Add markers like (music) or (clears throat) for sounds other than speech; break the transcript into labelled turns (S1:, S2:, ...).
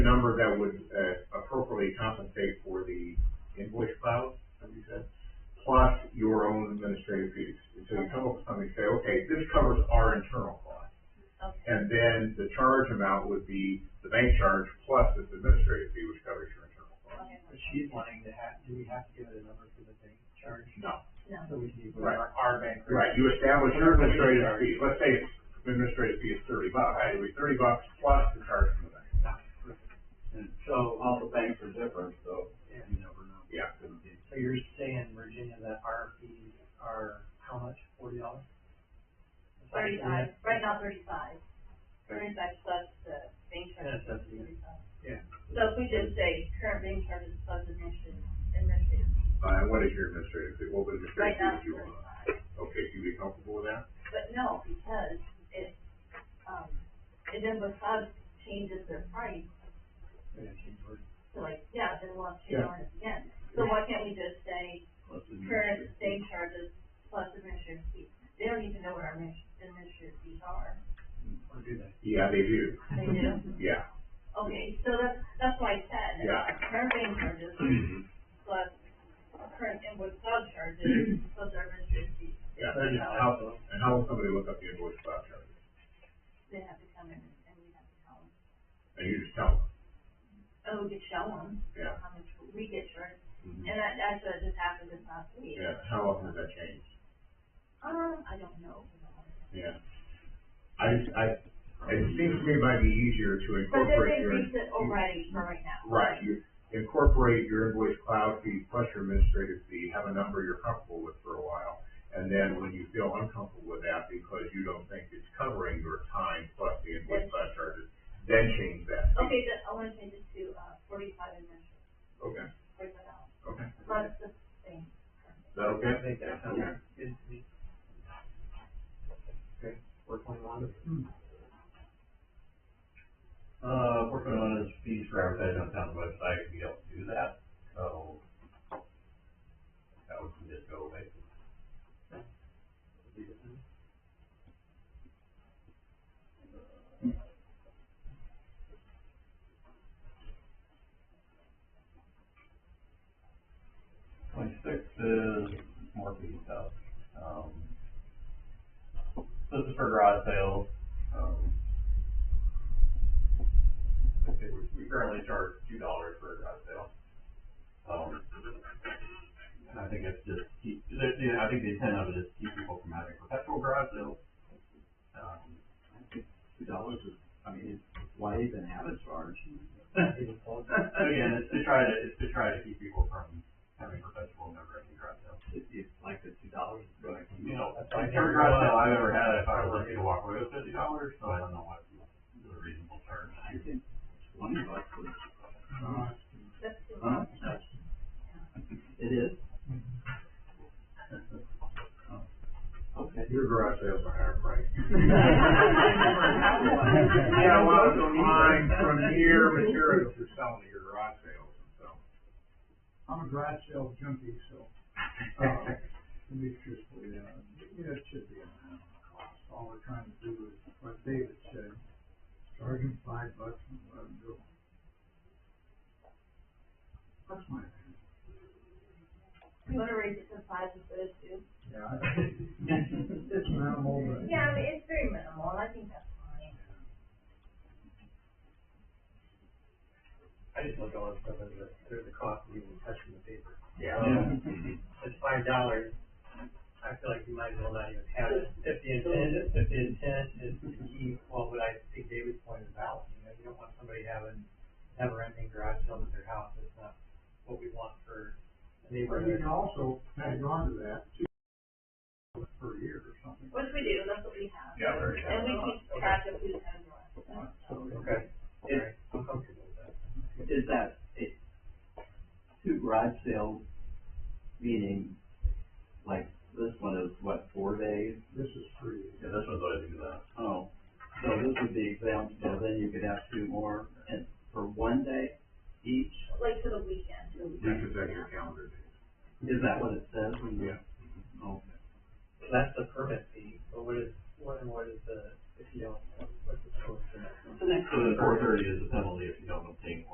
S1: number that would, uh, appropriately compensate for the invoice cloud, as you said, plus your own administrative fees. And so you come up with something, say, okay, this covers our internal costs.
S2: Okay.
S1: And then the charge amount would be the bank charge plus this administrative fee, which covers your internal costs.
S2: Okay.
S3: But she's wanting to have, do we have to give it a number for the bank charge?
S1: No.
S2: No.
S3: So we can use
S1: Right.
S3: our, our bank. rate.
S1: Right, you establish your
S3: Whatever we
S1: administrative
S3: charge.
S1: fee, let's say it's administrative fee is thirty bucks, it would be thirty bucks plus the charge from the bank.
S4: And so all the banks are different, so
S3: Yeah.
S4: you never know.
S1: Yeah.
S4: It's gonna be-
S3: So you're saying, Virginia, that our fees are how much, forty dollars?
S2: Thirty-five, uh, right now thirty-five. Thirty-five plus the bank charges.
S3: Yeah, that's it.
S2: $35.
S3: Yeah.
S2: So if we just say current bank charges plus administrative, administrative,
S1: Uh, and what is your administrative fee, what would the
S2: right
S1: administrative fee
S2: now
S1: that
S2: it's
S1: you want?
S2: thirty-five.
S1: Okay, you be comfortable with that?
S2: But no, because it, um, and then the club changes their price,
S3: Yeah, she's worth-
S2: so like, yeah, then we'll have to
S1: Yeah.
S2: go on it again. So why can't we just say
S4: Plus the-
S2: current bank charges plus administrative fees? They don't even know what our admin- administrative fees are.
S3: Or do they?
S1: Yeah, they do,
S2: They do?
S1: yeah.
S2: Okay, so that's, that's why I said,
S1: Yeah.
S2: current bank charges plus current invoice cloud charges
S1: (clears throat)
S2: plus our administrative fees,
S1: Yeah,
S3: Thirty
S1: and how,
S3: dollars.
S1: and how will somebody look up the invoice cloud charge?
S2: they have to come in and we have to tell them.
S1: And you just tell
S2: Oh, we could show them
S1: them, yeah.
S2: how much we get charged,
S1: Mhm.
S2: and that, that's what just happened this last week.
S1: Yeah, how often has that changed?
S2: Um, I don't know.
S1: Yeah. I, just- I, it seems to me it might be easier to
S2: But then
S1: incorporate
S2: they
S1: your.
S2: fixed it already for right now.
S1: Right, you incorporate your invoice cloud fee plus your administrative fee, have a number you're comfortable with for a while. And then when you feel uncomfortable with that because you don't think it's covering your time plus the invoice cloud charges, then change that. fee.
S2: Okay, then I wanna change it to, uh, forty-five and then
S1: Okay,
S2: break it out,
S1: okay. Is
S2: plus the thing.
S1: that okay?
S3: I think that sounds
S1: Okay.
S3: good to me. Okay, four point (laughs) one.
S4: Uh, working on is fees for advertising on town website, we don't do that, so that one can just go away. Twenty-six is marketing stuff, um, this is for garage sales, um, Okay, we, we currently charge two dollars for a garage sale. Um, and I think it's just keep, the, the, I think the intent of it is to keep people from having perpetual garage sales. Um, I think two dollars is, I mean, it's, why even have a charge? So again, Oh, it's to try to, it's to try to keep people from having perpetual never ending garage sales.
S5: If you like the two dollars, but I can,
S4: You know,
S3: That's
S4: like
S3: like
S4: every
S3: everyone-
S4: garage sale I've ever had, if I were lucky to walk away with fifty dollars, so I don't know what the reasonable charge.
S5: I think twenty bucks is,
S2: That's too
S5: huh?
S2: much.
S5: It
S4: (laughs)
S5: is? Oh, Okay.
S1: Your garage sales are higher price.
S4: Yeah,
S1: Yeah, well, it's mine from
S4: here.
S1: here, materials to sell to your garage sales, so.
S6: I'm a garage sale junkie, so, uh, to be truthful, yeah, yeah, it should be a minimum cost. All we're trying to do is, what David said, charge him five bucks and let him do it. That's my opinion.
S1: Uh-huh.
S2: You wanna raise it to five instead of two?
S6: Yeah. I- It's minimal, but.
S2: Yeah, I mean, it's very minimal, and I think that's fine.
S3: I just look at all this stuff as a, there's a cost of even touching the paper. Um,
S1: Yeah.
S3: It's five dollars. I feel like you might as well not even have it. If the intent, if the intent is to keep, well, what I think David's point is valid, you know, you don't want somebody having, never ending garage sales at their house. It's not what we want for a
S6: But you
S3: neighborhood.
S6: can also tag on to that, two dollars per year or something.
S2: Which we do, that's what we have.
S4: Yeah, very
S2: And we keep track of who's had
S6: Uh,
S2: what.
S6: So,
S3: Okay. All
S5: Is,
S3: right. I'm comfortable with that.
S5: is that, it, two garage sales, meaning, like, this one is what, four days?
S6: this is free.
S4: Yeah, this one's always do that.
S5: Oh, so this would be example, so then you could have two more, and for one day each,
S2: Like for the weekend.
S1: Reconfigure your calendar.
S5: is that what it says? in the-
S1: Yeah.
S5: Oh,
S3: So That's the permit fee, but what is, what, and what is the, if you don't, what's the total?
S4: So the four thirty is the penalty if you